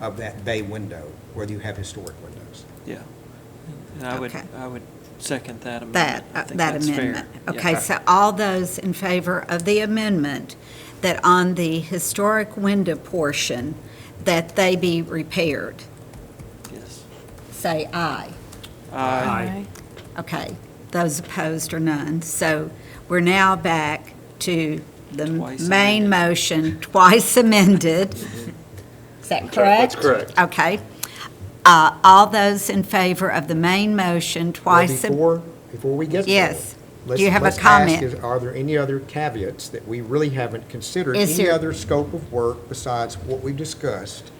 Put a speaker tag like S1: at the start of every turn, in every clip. S1: of that bay window, whether you have historic windows.
S2: Yeah. And I would,
S3: Okay.
S2: I would second that
S3: That,
S2: amendment. I
S3: uh,
S2: think
S3: that
S2: that's fair.
S3: amendment.
S2: Yeah.
S3: Okay, so all those in favor of the amendment, that on the historic window portion, that they be repaired,
S2: Yes.
S3: say aye.
S2: Aye.
S3: Okay, those opposed are none. So we're now back to the
S2: Twice
S3: main motion, twice amended. Is that correct?
S4: That's correct.
S3: Okay. Uh, All those in favor of the main motion,
S1: Well,
S3: twice, am-
S1: Before, before we get there.
S3: Yes. Do you
S1: let's-
S3: have a
S1: let's ask
S3: comment?
S1: is, Are there any other caveats that we really haven't considered?
S3: Is
S1: Any
S3: there-
S1: other scope of work besides what we've discussed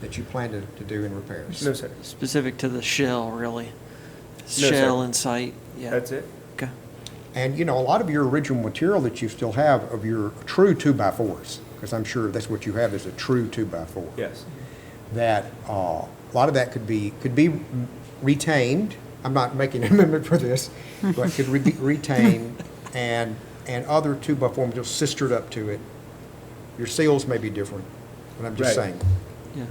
S1: that you plan to, to do in repairs?
S4: No, sir.
S2: Specific to the shell, really.
S4: sir.
S2: Shell and site, yeah.
S4: That's it.
S2: Okay.
S1: And, you know, a lot of your original material that you still have of your true two-by-fours, because I'm sure that's what you have is a true two-by-four.
S4: Yes.
S1: That, uh, a lot of that could be, could be retained. I'm not making an amendment for this, but could re- be retained and, and other two-by-four materials sistered up to it. Your seals may be different, but I'm just
S4: Right.
S1: saying.
S2: Yeah.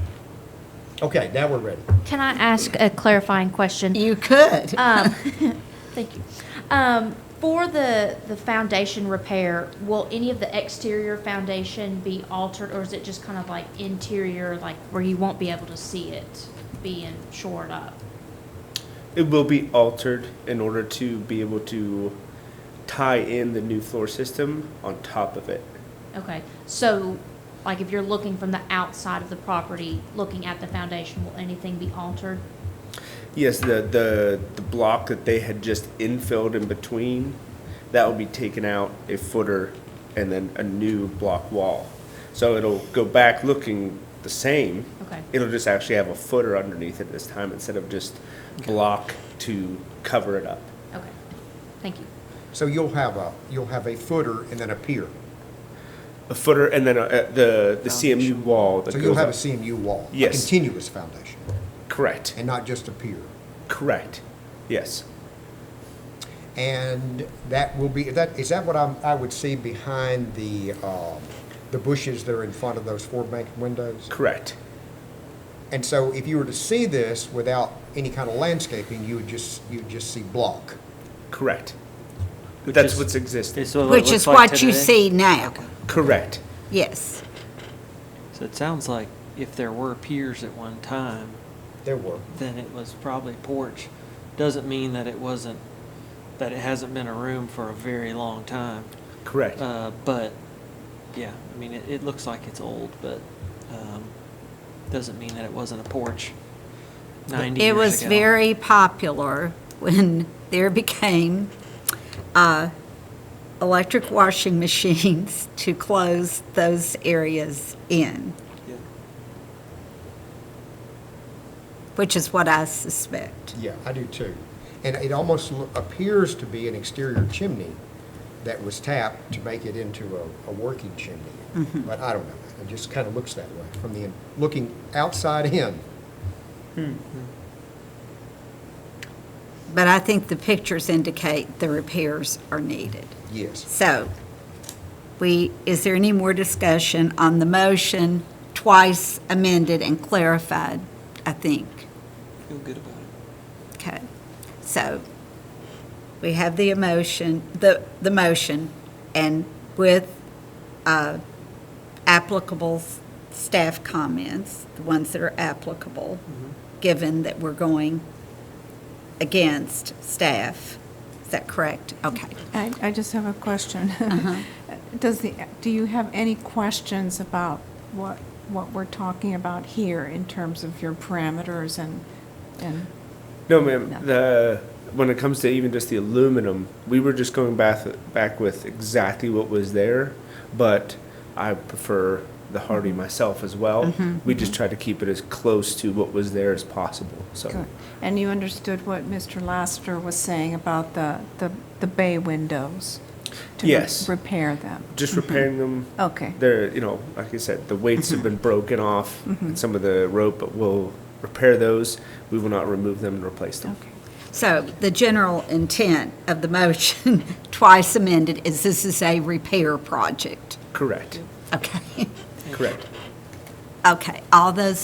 S1: Okay, now we're ready.
S5: Can I ask a clarifying question?
S3: you could.
S5: Thank you. Um, for the, the foundation repair, will any of the exterior foundation be altered, or is it just kind of like interior, like where you won't be able to see it being shored up?
S4: It will be altered in order to be able to tie in the new floor system on top of it.
S5: Okay, so, like if you're looking from the outside of the property, looking at the foundation, will anything be altered?
S4: Yes, the, the, the block that they had just infilled in between, that will be taken out, a footer, and then a new block wall. So it'll go back looking the same.
S5: Okay.
S4: It'll just actually have a footer underneath it this time instead of just block to cover it up.
S5: Okay, thank you.
S1: So you'll have a, you'll have a footer and then a pier.
S4: A footer and then a, a, the, the CMU wall that
S1: So
S4: goes
S1: you'll have a
S4: up.
S1: CMU wall. a
S4: Yes.
S1: Continuous foundation,
S4: Correct.
S1: and not just a pier.
S4: Correct. Yes.
S1: And that will be, that, is that what I'm, I would see behind the, um, the bushes that are in front of those four bank windows?
S4: Correct.
S1: And so if you were to see this without any kind of landscaping, you would just, you would just see block.
S4: Correct.
S2: Which
S4: That's
S2: is-
S4: what's existing.
S2: it's what it
S3: Which
S2: looks
S3: is
S2: like
S3: what you
S2: today.
S3: see now.
S4: Correct.
S3: Yes.
S2: So it sounds like if there were piers at one time,
S1: There were.
S2: then it was probably porch. Doesn't mean that it wasn't, that it hasn't been a room for a very long time.
S4: Correct.
S2: Uh, but, yeah, I mean, it, it looks like it's old, but, um, doesn't mean that it wasn't a porch ninety years
S3: It
S2: ago.
S3: was very popular when there became uh, electric washing machines to close those areas in,
S2: Yeah.
S3: which is what I suspect.
S1: Yeah, I do too. And it almost lo- appears to be an exterior chimney that was tapped to make it into a, a working chimney. But I don't know. It just kind of looks that way from the, in- looking outside in.
S3: But I think the pictures indicate the repairs are needed.
S1: Yes.
S3: So, we, is there any more discussion on the motion twice amended and clarified, I think?
S2: Feel good about it.
S3: Okay, so we have the emotion, the, the motion, and with uh, applicable s- staff comments, the ones that are applicable, given that we're going against staff. Is that correct? Okay.
S6: I, I just have a question. Does the, do you have any questions about what, what we're talking about here in terms of your parameters and, and,
S4: No, ma'am.
S6: No.
S4: The when it comes to even just the aluminum, we were just going back back with exactly what was there, but I prefer the Hardy
S6: Mm-hmm.
S4: myself as well. We just try to keep it as close to what was there as possible. So
S6: and you understood what Mr. Lassiter was saying about the, the, the bay windows? to re-
S4: Yes.
S6: Repair them.
S4: just repairing them.
S6: Mm-hmm. Okay. Mm-hmm.
S4: They're you know like I said, the weights have been broken off and some of the rope, but we'll repair those. We will not remove them and replace them.
S6: Okay.
S3: So the general intent of the motion, twice amended, is this is a repair project.
S4: Correct.
S3: Okay,
S4: Correct.
S3: okay. All those